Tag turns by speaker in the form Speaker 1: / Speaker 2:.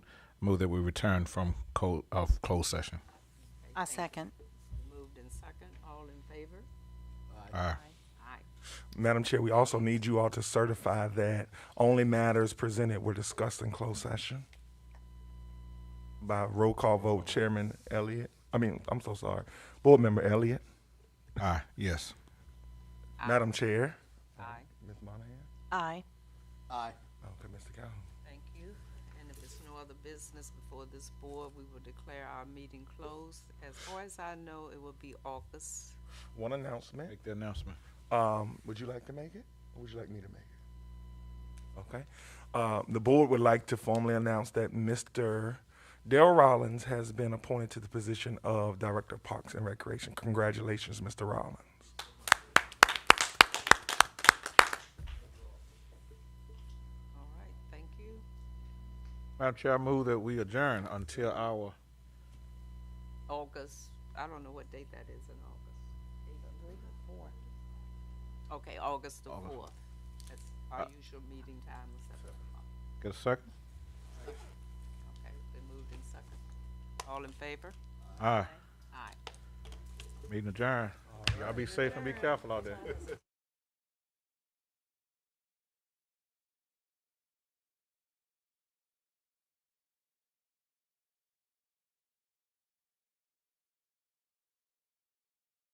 Speaker 1: Move that we return from co- of closed session.
Speaker 2: I second.
Speaker 3: Moved in second, all in favor?
Speaker 1: Aye.
Speaker 3: Aye.
Speaker 4: Madam Chair, we also need you all to certify that only matters presented were discussed in closed session. By roll call vote, Chairman Elliott, I mean, I'm so sorry, Board Member Elliott,
Speaker 1: Aye, yes.
Speaker 4: Madam Chair.
Speaker 3: Aye,
Speaker 4: Ms. Monahan?
Speaker 2: Aye.
Speaker 5: Aye.
Speaker 4: Okay, Mr. Calhoun.
Speaker 3: thank you. And if there's no other business before this board, we will declare our meeting closed. As far as I know, it will be August.
Speaker 4: One announcement.
Speaker 1: Make the announcement.
Speaker 4: Um, would you like to make it? Or would you like me to make it? Okay. Uh, the board would like to formally announce that Mr. Dale Rollins has been appointed to the position of Director of Parks and Recreation. Congratulations, Mr. Rollins.
Speaker 3: All right, thank you.
Speaker 1: Madam Chair, I move that we adjourn until our,
Speaker 3: August, I don't know what date that is in August. Okay, August the
Speaker 1: August.
Speaker 3: fourth. That's our usual meeting time of seven o'clock.
Speaker 1: get a second?
Speaker 3: Okay, been moved in second. All in favor?
Speaker 1: Aye,
Speaker 3: Aye.
Speaker 1: meeting adjourned. Y'all be safe and be careful out there.